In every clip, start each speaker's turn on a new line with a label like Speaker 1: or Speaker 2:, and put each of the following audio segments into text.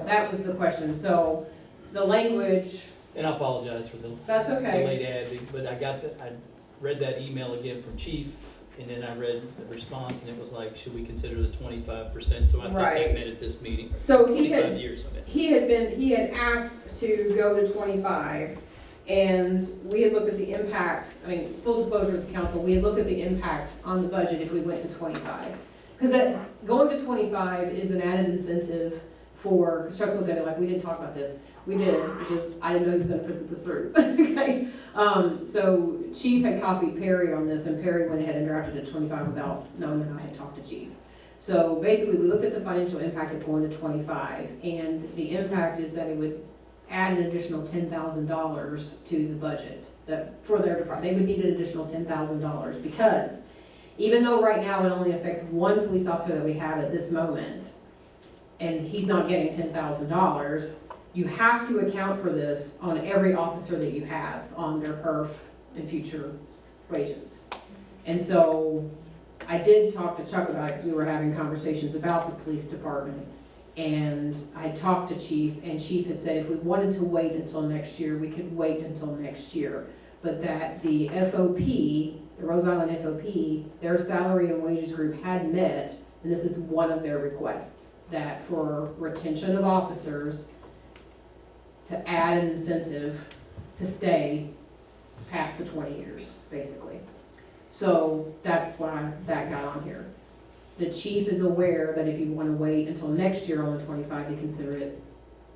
Speaker 1: that was the question, so the language,
Speaker 2: And I apologize for the
Speaker 1: that's okay.
Speaker 2: late ad, but I got, the- I read that email again from chief, and then I read the response, and it was like, should we consider the twenty-five percent? So I thought
Speaker 1: Right.
Speaker 2: they meant at this meeting,
Speaker 1: So he had
Speaker 2: twenty-five years of it.
Speaker 1: He had been, he had asked to go to twenty-five, and we had looked at the impact, I mean, full disclosure with the council, we had looked at the impact on the budget if we went to twenty-five. Because that, going to twenty-five is an added incentive for construction data, like, we didn't talk about this, we did, which is, I didn't know he was gonna present this through, okay? Um, so Chief had copied Perry on this, and Perry went ahead and drafted a twenty-five without knowing that I had talked to Chief. So basically, we looked at the financial impact of going to twenty-five, and the impact is that it would add an additional ten thousand dollars to the budget, that, for their department, they would need an additional ten thousand dollars, because even though right now it only affects one police officer that we have at this moment, and he's not getting ten thousand dollars, you have to account for this on every officer that you have on their perf and future wages. And so, I did talk to Chuck about it, because we were having conversations about the police department. And I talked to Chief, and Chief had said if we wanted to wait until next year, we could wait until next year. But that the FOP, the Rose Island FOP, their salary and wages group had met, and this is one of their requests, that for retention of officers, to add an incentive to stay past the twenty years, basically. So that's why that got on here. The chief is aware that if you want to wait until next year on the twenty-five to consider it,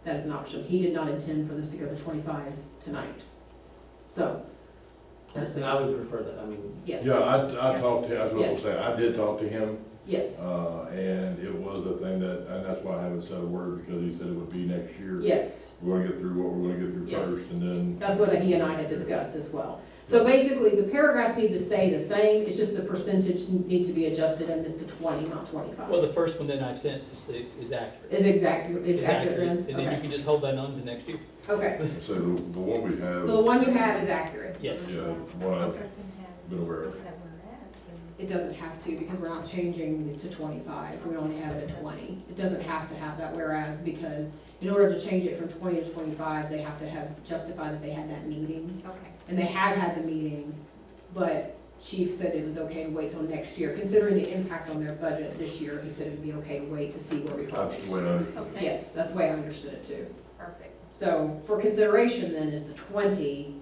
Speaker 1: that is an option. He did not intend for this to go to twenty-five tonight. So,
Speaker 3: And I would prefer that, I mean,
Speaker 1: yes,
Speaker 4: Yeah, I, I talked to, him. I was gonna
Speaker 1: Yes.
Speaker 4: say, I did talk to him,
Speaker 1: yes,
Speaker 4: uh, and it was a thing that, and that's why I haven't said a word, because he said it would be next year.
Speaker 1: yes.
Speaker 4: We're gonna get through what we're gonna get through
Speaker 1: Yes.
Speaker 4: first, and then.
Speaker 1: That's what he and I had discussed as well. So basically, the paragraphs need to stay the same. It's just the percentage need to be adjusted and this to twenty, not
Speaker 2: Well,
Speaker 1: twenty-five.
Speaker 2: the first one that I sent is, the- is accurate.
Speaker 1: Is exact, is accurate then?
Speaker 2: And then you can just hold that on to next year.
Speaker 1: Okay, okay.
Speaker 4: So the, the one we have,
Speaker 1: So the one you have is accurate.
Speaker 2: Yes.
Speaker 4: yeah, what I've been aware of.
Speaker 1: It doesn't have to, because we're not changing it to twenty-five, we only have it at twenty. It doesn't have to have that whereas, because in order to change it from twenty to twenty-five, they have to have justified that they had that meeting.
Speaker 5: Okay,
Speaker 1: And they have had the meeting, but chief said it was okay to wait till next year, considering the impact on their budget this year, he said it'd be okay to wait to see where we fall
Speaker 4: That's
Speaker 1: next
Speaker 4: the way I
Speaker 1: year.
Speaker 4: understood it.
Speaker 5: okay.
Speaker 1: Yes, that's the way I understood it too.
Speaker 5: Perfect.
Speaker 1: So for consideration then is the twenty,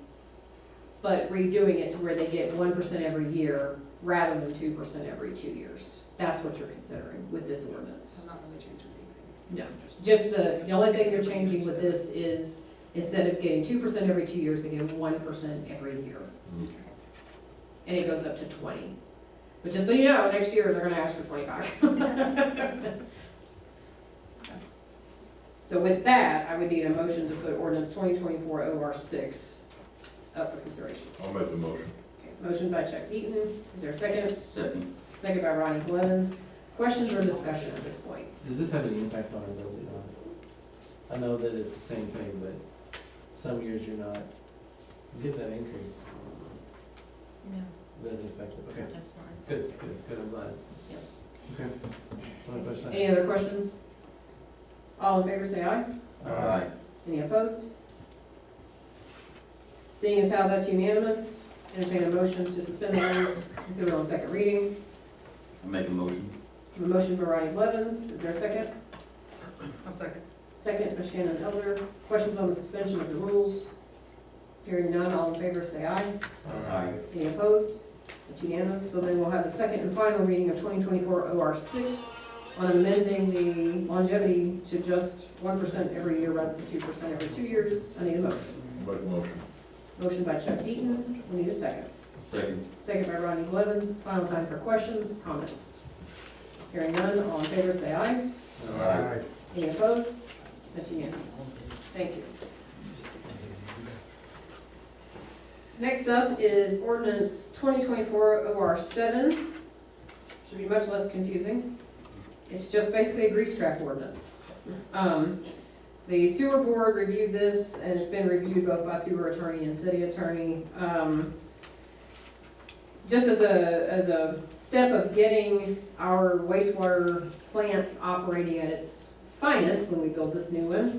Speaker 1: but redoing it to where they get one percent every year rather than two percent every two years. That's what you're considering with this
Speaker 6: So
Speaker 1: ordinance.
Speaker 6: I'm not really changing anything.
Speaker 1: No. Just the, the only thing you're changing with this is instead of getting two percent every two years, they get one percent every year.
Speaker 4: Mm.
Speaker 1: And it goes up to twenty. But just so you know, next year they're gonna ask for twenty-five. So with that, I would need a motion to put ordinance twenty twenty-four O R six up for consideration.
Speaker 4: Mm, I'll make the motion.
Speaker 1: Okay, Motion by Chuck Eaton, is there a second? Second. Second by Ronnie Blevins. Questions or discussion at this point?
Speaker 3: does this have any impact on our building? I know that it's the same thing, but some years you're not, you get that increase,
Speaker 5: No,
Speaker 3: it doesn't affect it, okay,
Speaker 5: that's fine.
Speaker 3: good, good, good, I'm glad.
Speaker 1: Yep.
Speaker 3: Okay. That's my question.
Speaker 1: Any other questions? All in favor, say aye.
Speaker 3: Alright.
Speaker 1: Any opposed? Seeing as how that's unanimous, entertain a motion to suspend the rules, consider it on second reading.
Speaker 7: Make a motion.
Speaker 1: A motion for Ronnie Blevins, is there a second?
Speaker 6: I'll second.
Speaker 1: Second by Shannon Elder. Questions on the suspension of the rules? Hearing none, all in favor, say aye. Any opposed? It's unanimous, so then we'll have the second and final reading of 2024 OR 6 on amending the longevity to just 1% every year rather than 2% every two years. I need a motion.
Speaker 4: Make the motion.
Speaker 1: Motion by Chuck Eaton, we need a second.
Speaker 7: Second.
Speaker 1: Second by Ronnie Blevins, final time for questions, comments. Hearing none, all in favor say aye.
Speaker 7: Aye.
Speaker 1: Any opposed? That's unanimous. Thank you. Next up is ordinance 2024 OR 7. Should be much less confusing. It's just basically a grease trap ordinance. Um, The sewer board reviewed this, and it's been reviewed both by sewer attorney and city attorney. Um, Just as a, as a step of getting our wastewater plant operating at its finest when we build this new one.